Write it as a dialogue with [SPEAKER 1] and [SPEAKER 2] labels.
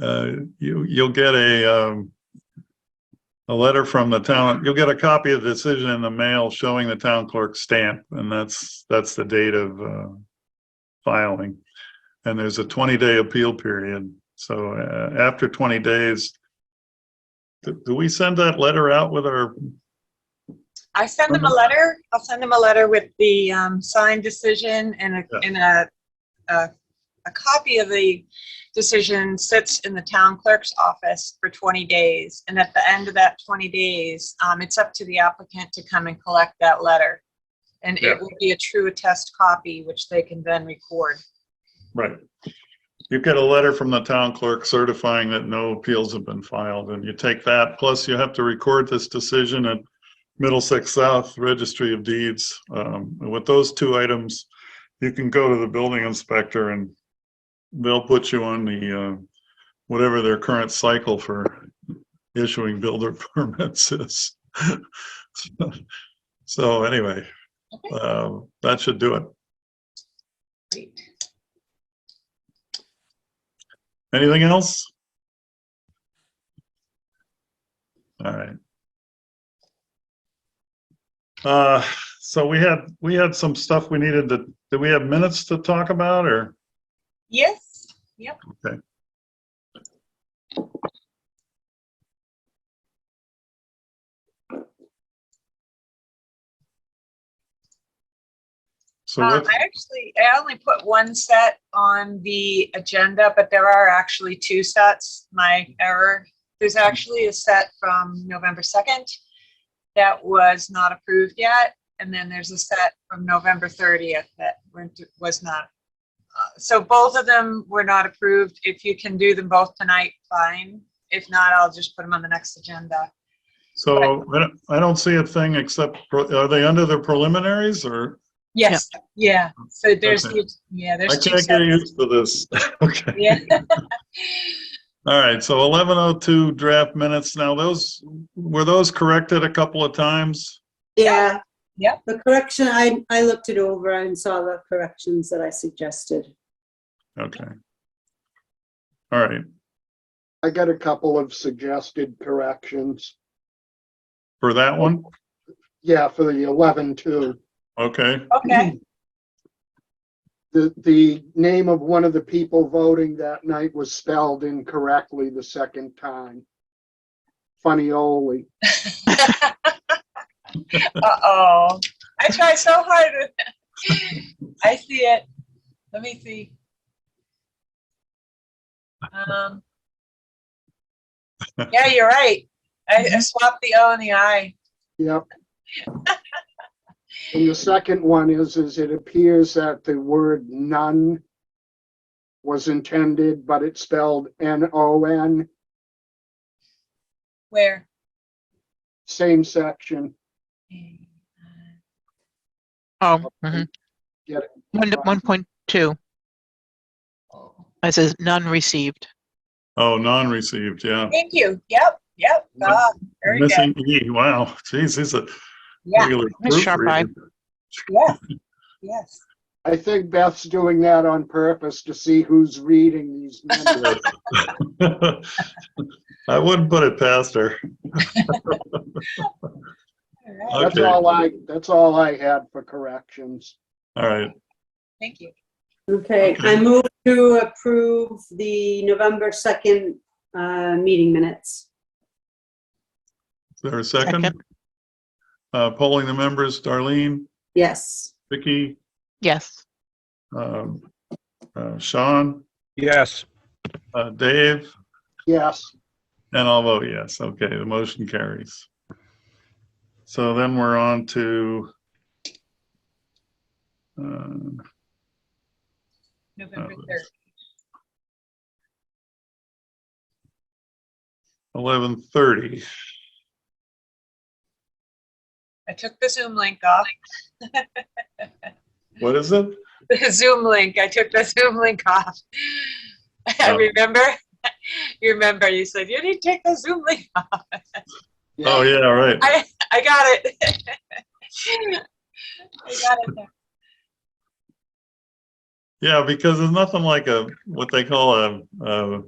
[SPEAKER 1] uh, you, you'll get a, um, a letter from the town, you'll get a copy of the decision in the mail showing the town clerk's stamp, and that's, that's the date of, uh, filing. And there's a twenty-day appeal period, so, uh, after twenty days, do, do we send that letter out with our,
[SPEAKER 2] I send them a letter, I'll send them a letter with the um, signed decision and
[SPEAKER 1] Yeah.
[SPEAKER 2] a, and a, a, a copy of the decision sits in the town clerk's office for 20 days. And at the end of that 20 days, um, it's up to the applicant to come and collect that letter. And
[SPEAKER 1] Yeah.
[SPEAKER 2] it will be a true attest copy, which they can then record.
[SPEAKER 1] right? You get a letter from the town clerk certifying that no appeals have been filed, and you take that, plus you have to record this decision at Middlesex South Registry of Deeds. Um, and with those two items, you can go to the building inspector and they'll put you on the, uh, whatever their current cycle for issuing builder permits is. So anyway,
[SPEAKER 2] Okay.
[SPEAKER 1] uh, that should do it.
[SPEAKER 2] Great.
[SPEAKER 1] Anything else? All right. Uh, so we had, we had some stuff we needed to, do we have minutes to talk about or?
[SPEAKER 2] Yes,
[SPEAKER 1] So
[SPEAKER 2] um,
[SPEAKER 1] what,
[SPEAKER 2] I actually, I only put one set on the agenda, but there are actually two sets, my error. There's actually a set from November 2nd that was not approved yet, and then there's a set from November 30th that went to- was not. uh, So both of them were not approved. If you can do them both tonight, fine. If not, I'll just put them on the next agenda.
[SPEAKER 1] so I don't, I don't see a thing except, pro- are they under the preliminaries or?
[SPEAKER 2] Yes, yeah, so there's,
[SPEAKER 1] Okay.
[SPEAKER 2] the- yeah,
[SPEAKER 1] I
[SPEAKER 2] there's two
[SPEAKER 1] can't get
[SPEAKER 2] sets.
[SPEAKER 1] used to this. Okay.
[SPEAKER 2] Yeah.
[SPEAKER 1] All right, so 1102 draft minutes. Now those, were those corrected a couple of times?
[SPEAKER 2] Yeah.
[SPEAKER 3] Yeah.
[SPEAKER 2] Yep.
[SPEAKER 3] The correction, I, I looked it over and saw the corrections that I suggested.
[SPEAKER 1] Okay. All right,
[SPEAKER 4] I got a couple of suggested corrections.
[SPEAKER 1] for that one?
[SPEAKER 4] Yeah, for the eleven two.
[SPEAKER 1] Okay,
[SPEAKER 2] Okay.
[SPEAKER 4] The, the name of one of the people voting that night was spelled incorrectly the second time. Funny Ole.
[SPEAKER 2] Uh-oh. I try so hard with that. I see it. Let me see. Um. Yeah, you're right. I
[SPEAKER 1] Mm-hmm.
[SPEAKER 2] I swapped the O and the I.
[SPEAKER 4] Yep. And the second one is, is it appears that the word none was intended, but it's spelled N O N,
[SPEAKER 2] Where?
[SPEAKER 4] same section.
[SPEAKER 5] Oh, mhm.
[SPEAKER 4] Get
[SPEAKER 5] One, one point two, it says none received.
[SPEAKER 1] oh, non-received, yeah.
[SPEAKER 2] Thank you. Yep, yep. Ah, Very good.
[SPEAKER 1] Missing E, wow, geez, he's a
[SPEAKER 2] Yeah,
[SPEAKER 1] regular
[SPEAKER 5] Miss Sharp Eye.
[SPEAKER 1] proofreader.
[SPEAKER 2] yes, yes.
[SPEAKER 4] I think Beth's doing that on purpose to see who's reading these minutes.
[SPEAKER 1] I wouldn't put it past her.
[SPEAKER 2] All right.
[SPEAKER 1] Okay.
[SPEAKER 4] That's all I, that's all I had for corrections.
[SPEAKER 1] All right,
[SPEAKER 2] Thank you.
[SPEAKER 3] Okay, I
[SPEAKER 1] Okay.
[SPEAKER 3] move to approve the November 2nd, uh, meeting minutes.
[SPEAKER 1] is there a second? Uh, polling the members, Darlene,
[SPEAKER 3] Yes.
[SPEAKER 1] Vicky,
[SPEAKER 5] Yes,
[SPEAKER 1] um, uh, Sean,
[SPEAKER 6] Yes,
[SPEAKER 1] uh, Dave,
[SPEAKER 4] Yes,
[SPEAKER 1] and I'll vote yes. Okay, the motion carries. So then we're on to uh,
[SPEAKER 2] November
[SPEAKER 1] Oh,
[SPEAKER 2] 3rd.
[SPEAKER 1] 11:30.
[SPEAKER 2] I took the Zoom link off.
[SPEAKER 1] What is it?
[SPEAKER 2] the Zoom link. I took the Zoom link off. I
[SPEAKER 1] Oh.
[SPEAKER 2] remember, you remember, you said, you need to take the Zoom link off.
[SPEAKER 1] Oh, yeah, right.
[SPEAKER 2] I, I got it. I got it. now.
[SPEAKER 1] Yeah, because there's nothing like a, what they call a, a